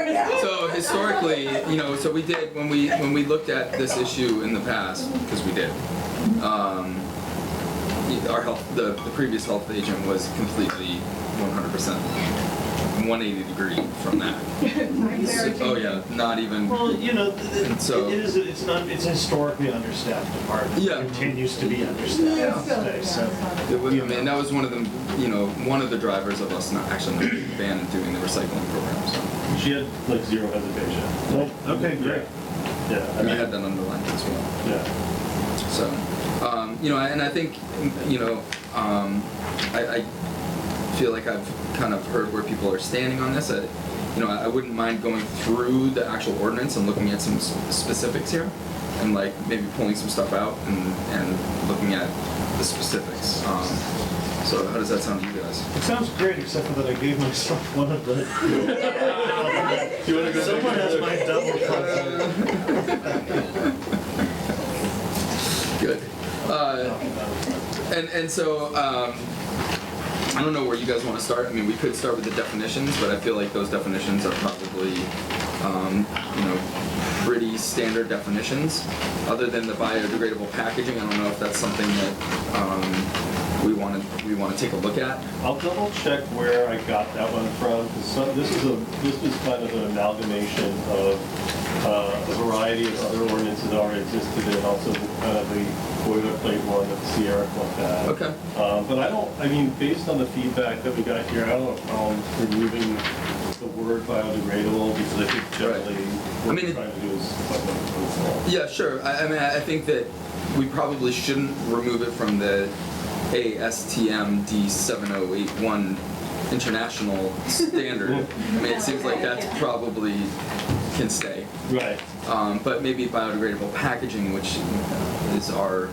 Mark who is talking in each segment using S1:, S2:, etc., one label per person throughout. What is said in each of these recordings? S1: Yeah.
S2: So historically, you know, so we did when we when we looked at this issue in the past because we did. Um, our health, the, the previous health agent was completely 100% 180 degree from that. So- oh yeah, not even.
S3: Well, you know, th- th-
S2: And so-
S3: it is, it's not, it's a historically understaffed department.
S2: Yeah.
S3: It Continues to be
S1: Yeah,
S3: understaffed
S1: it's still-
S3: today,
S1: yeah,
S3: so.
S1: it's
S2: It was, I mean, that was one of the, you know, one of the drivers of us not actually not being banned and doing the recycling program. So
S4: She had like zero hesitation.
S3: Oh, Okay, great.
S4: Yeah, I
S2: I
S4: mean,
S2: had that underlined as well.
S4: yeah.
S2: So, um, you know, and I think, you know, um, I, I feel like I've kind of heard where people are standing on this. I, you know, I wouldn't mind going through the actual ordinance and looking at some s- specifics here, and like maybe pulling some stuff out and, and looking at the specifics. Um, so, how does that sound to you guys?
S3: It sounds great, except for that I gave myself one of the.
S4: Do you want to go?
S3: Someone has my double cup.
S2: Good. Uh, And and so um, I don't know where you guys want to start. I mean, we could start with the definitions, but I feel like those definitions are probably um, you know pretty standard definitions. Other than the biodegradable packaging, I don't know if that's something that um, we want to we want to take a look at.
S4: I'll double check where I got that one from, 'cause some- this is a, this is kind of an amalgamation of uh, a variety of other ordinances that already existed, and also the, uh, the boilerplate one that Sierra looked at.
S2: Okay.
S4: Um, But I don't, I mean, based on the feedback that we got here, I don't have problems removing the word biodegradable, because I think generally
S2: Right. I
S4: what
S2: mean,
S4: we're
S2: it-
S4: trying to do is. something
S2: Yeah, sure. I, I mean, I I think that we probably shouldn't remove it from the ASTM D7081 international standard. I mean, it seems like that's probably can stay.
S4: useful. Right.
S2: Um, but maybe biodegradable packaging, which is our,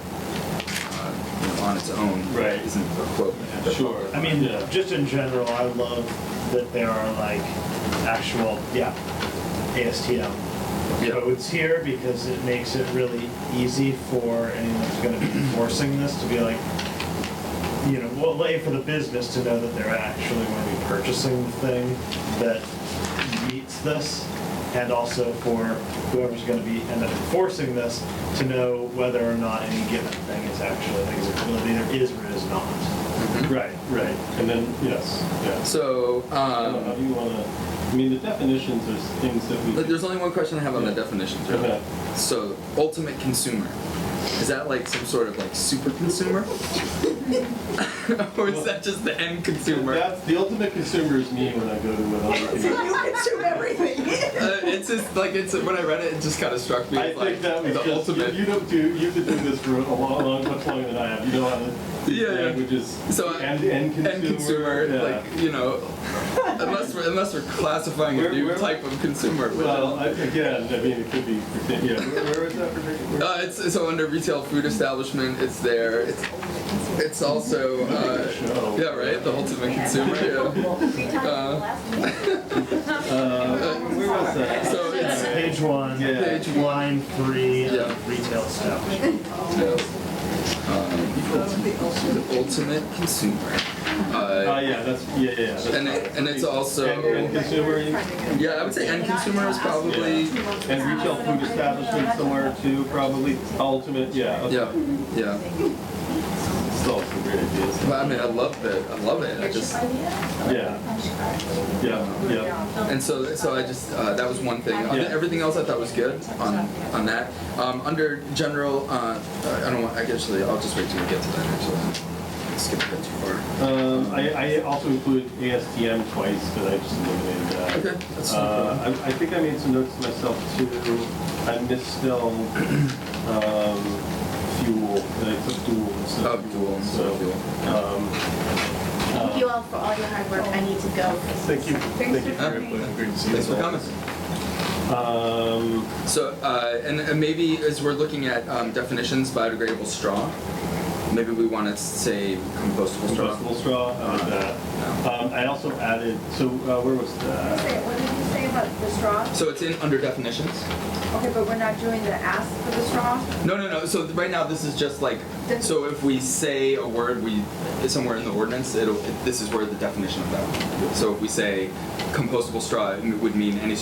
S2: uh, you know, on its own,
S4: Right.
S2: isn't a quote.
S4: Sure.
S3: I mean,
S4: Yeah.
S3: just in general, I love that there are like actual, yeah, ASTM
S2: Yeah.
S3: codes here because it makes it really easy for anyone who's going to be enforcing this to be like, you know, well, lay for the business to know that they're actually going to be purchasing the thing that meets this, and also for whoever's going to be end up enforcing this to know whether or not any given thing is actually like, is it- whether either is or is not.
S4: Right, right. And then, yes, yes.
S2: So,
S4: Um, How
S2: um,
S4: do you wanna, I mean, the definitions, there's things that we.
S2: but there's only one question I have on the definitions, really.
S4: Okay.
S2: So, ultimate consumer. Is that like some sort of like super consumer? or is that just the end consumer? Uh,
S4: That's, the ultimate consumer is me when I go to another.
S1: You consume everything.
S2: Uh, it's just like it's when I read it, it just kind of struck me.
S4: I
S2: as, like,
S4: think that was
S2: the
S4: just,
S2: ultimate.
S4: you you don't do, you've been doing this for a long, long, much longer than I have. You know how the
S2: Yeah, yeah.
S4: language is.
S2: So, uh,
S4: End, end consumer.
S2: end consumer,
S4: yeah.
S2: like you know, unless we're, unless we're classifying a
S4: Where-
S2: new
S4: where-
S2: type of consumer. which-
S4: Well, I- again, I mean, it could be, yeah, where where is that particular?
S2: uh, it's so under retail food establishment, it's there. It's it's also uh,
S4: Show.
S2: yeah, right, the ultimate consumer. Yeah.
S4: Uh, where was that?
S2: So it's
S3: Page one,
S4: Yeah.
S2: Page one.
S3: line three,
S2: Yeah.
S3: uh, retail establishment.
S2: the ultimate consumer.
S4: Uh,
S2: Uh,
S4: yeah, that's, yeah, yeah, yeah. that's
S2: And it-
S4: right.
S2: and it's also-
S4: End end consumer, you-
S2: yeah, I would say end consumer is probably
S4: And retail food establishment somewhere too, probably ultimate, yeah. okay.
S2: yeah, yeah.
S4: It's all some great ideas.
S2: Well, I mean, I love it. I love it. I just uh,
S4: Yeah, yeah, yeah.
S2: and so so I just uh, that was one thing. Uh,
S4: Yeah.
S2: Everything else I thought was good on on that. Um, under general, uh, I don't want. I actually, I'll just wait till we get to that. Actually, skip a bit too far.
S4: Um, I, I also included ASTM twice, but I just eliminated that.
S2: Okay, that's no
S4: Uh, I, I think I made some notes myself too. I misspelled, um, fuel, and I took dual instead
S2: Oh,
S4: of
S2: dual
S4: fuel,
S2: instead
S4: so.
S2: of fuel.
S4: Um,
S5: Thank you all for all your hard work. I need to go.
S4: thank you, thank you for your input. Great to see you
S2: Thanks for
S4: all.
S2: coming.
S4: Um,
S2: So uh, and, and maybe as we're looking at um, definitions, biodegradable straw. Maybe we want to say compostable straw.
S4: Compostable straw, I like that. Um, I also added, so uh, where was that?
S6: What did you say about the straw?
S2: So it's in under definitions.
S6: Okay, but we're not doing the ask for the straw?
S2: No, no, no. So th- right now, this is just like. So if we say a word, we somewhere in the ordinance, it'll. It, this is where the definition of that. So if we say compostable straw, it would mean any